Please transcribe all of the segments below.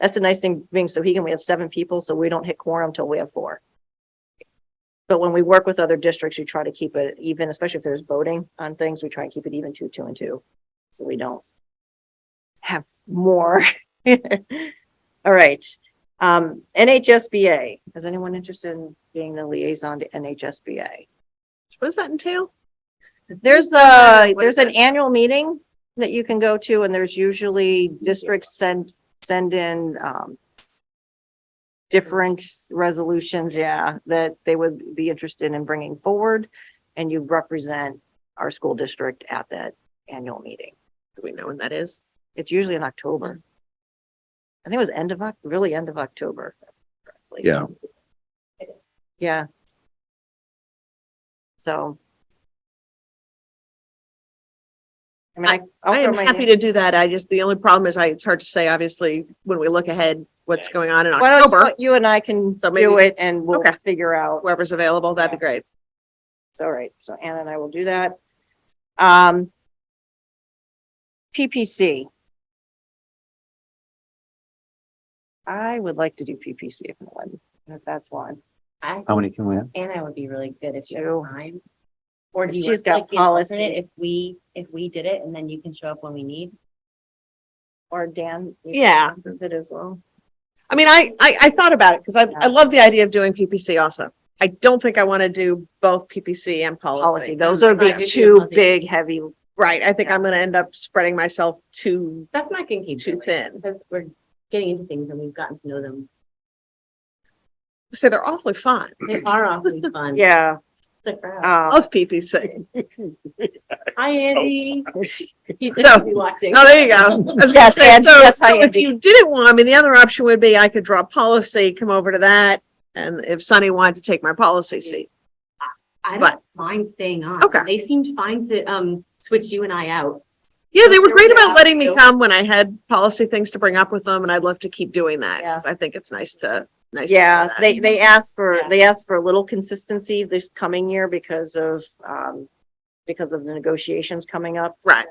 That's the nice thing being Sohegan, we have seven people, so we don't hit quorum till we have four. But when we work with other districts, we try to keep it even, especially if there's voting on things, we try and keep it even two, two and two. So we don't have more. All right. Um, NHSBA, is anyone interested in being the liaison to NHSBA? What does that entail? There's a, What is there's an it? annual meeting that you can go to and there's usually districts send, send in, um, different resolutions, yeah, that they would be interested in bringing forward. And you represent our school district at that annual meeting. Do we know when that is? It's usually in October. I think it was end of Oc, really end of October. correctly. Yeah. Yeah. So. I mean, I. I'll I throw am my happy name- to do that. I just, the only problem is I, it's hard to say, obviously, when we look ahead, what's going on in Why don't October, you- you and I can So do maybe- it and we'll Okay. figure out. whoever's available, that'd be great. It's all right. So Anna and I will do that. Um. PPC. I would like to do PPC if one, if that's one. I, Um, How many can we have? Anna would be really good if you Two. have time. Or do you? She's want, like, got be an alternate policy. If we, if we did it and then you can show up when we need. Or Dan. you Yeah. Interested as well. I mean, I, I, I thought about it because I, Yeah. I love the idea of doing PPC also. I don't think I want to do both PPC and Policy. policy. Those would be Yeah. two big heavy. Right. I think I'm going to end up spreading myself too, That's not gonna keep too doing it, thin. because we're getting into things and we've gotten to know them. So they're awfully fun. They are awfully fun. Yeah. Stick around. Um, Love PPC. Hi, Andy. He's So- gonna be watching. Oh, there you go. I was Yeah, gonna say, Sandy, so, that's how so you if do- you didn't want, I mean, the other option would be I could draw policy, come over to that. And if Sunny wanted to take my policy seat, I but- don't mind staying on. Okay. They seemed fine to, um, switch you and I out. yeah, they were There great we about are. letting me come when I had policy things to bring up with them. And I'd love to keep doing that. Yeah. 'cause I think it's nice to, nice. to do yeah, that. they, they asked for, Yeah. they asked for a little consistency this coming year because of, um, because of the negotiations coming up. Right.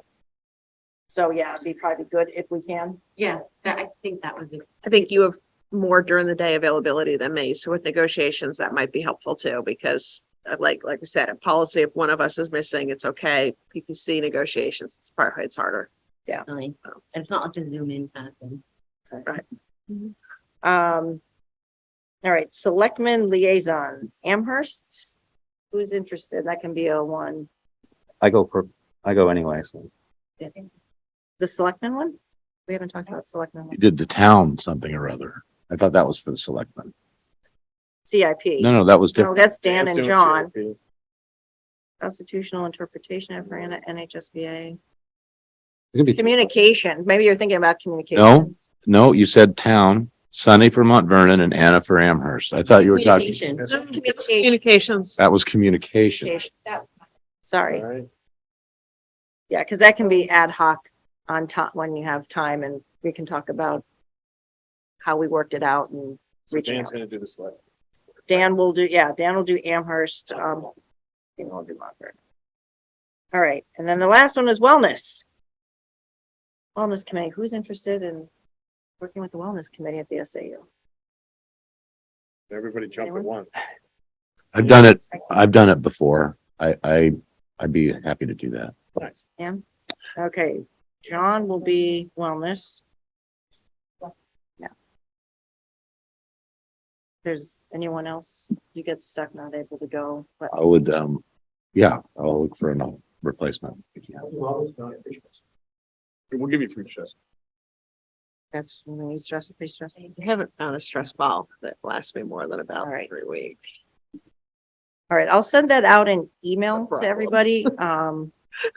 So yeah, it'd be probably good if we can. Yeah, that, I think that was, a- I think you have more during the day availability than me. So with negotiations, that might be helpful too, because uh, like, like we said, in policy, if one of us is missing, it's okay. PPC negotiations, it's part, it's harder. really- Oh. and it's not like a zoom in kind of thing. Um, all right, selectmen liaison, Amherst, who's interested? That can be a one. I go for, I go anyway, so. The selectman one? We haven't talked about selectmen one. You did the town something or other. I thought that was for the selectmen. CIP. No, no, that was No, different. Oh, that's Dan and John. Constitutional interpretation of Marana NHSBA. It could be- Communication, maybe you're thinking about communication. No, you said town, Sunny for Mount Vernon and Anna for Amherst. I thought you were talking, Communication. Communications. that was communication. Sorry, yeah, because that can be ad hoc on top when you have time and we can talk about how we worked it out and reaching out. gonna do the select. Dan will do, yeah, Dan will do Amherst, um, Dan will do Montford. All right, and then the last one is wellness. Wellness committee, who's interested in working with the wellness committee at the SAU? Everybody jump at once. I've done it, I've done it before. I, I, I'd be happy to do that. Nice. Okay, John will be wellness. Yeah. There's anyone else you get stuck not able to go, but I would, um, yeah, I'll look for a replacement. We'll give you free chest. that's, you know, he's stressed, pretty stressed. I haven't found a stress ball that lasts me more than about All right. three weeks. All right, I'll send that out in email to problem. everybody. Um, do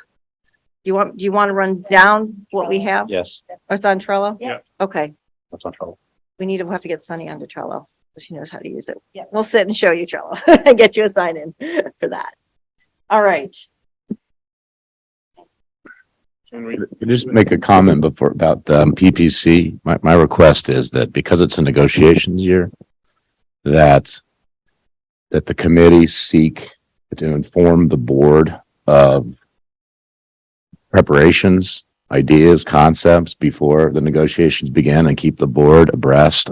you want, do you want to run down what we have? Yes, Oh, It's on Trello? Yeah. Okay, that's on trouble. we need to, we'll have to get Sunny onto Trello. so She knows how to use it. Yeah. We'll sit and show you Trello and get you a sign in for that. All right. Can I Just make a comment before, about, um, PPC. My, my request is that because it's a negotiations year, that, that the committee seek to inform the board of preparations ideas, concepts before the negotiations begin and keep the board abreast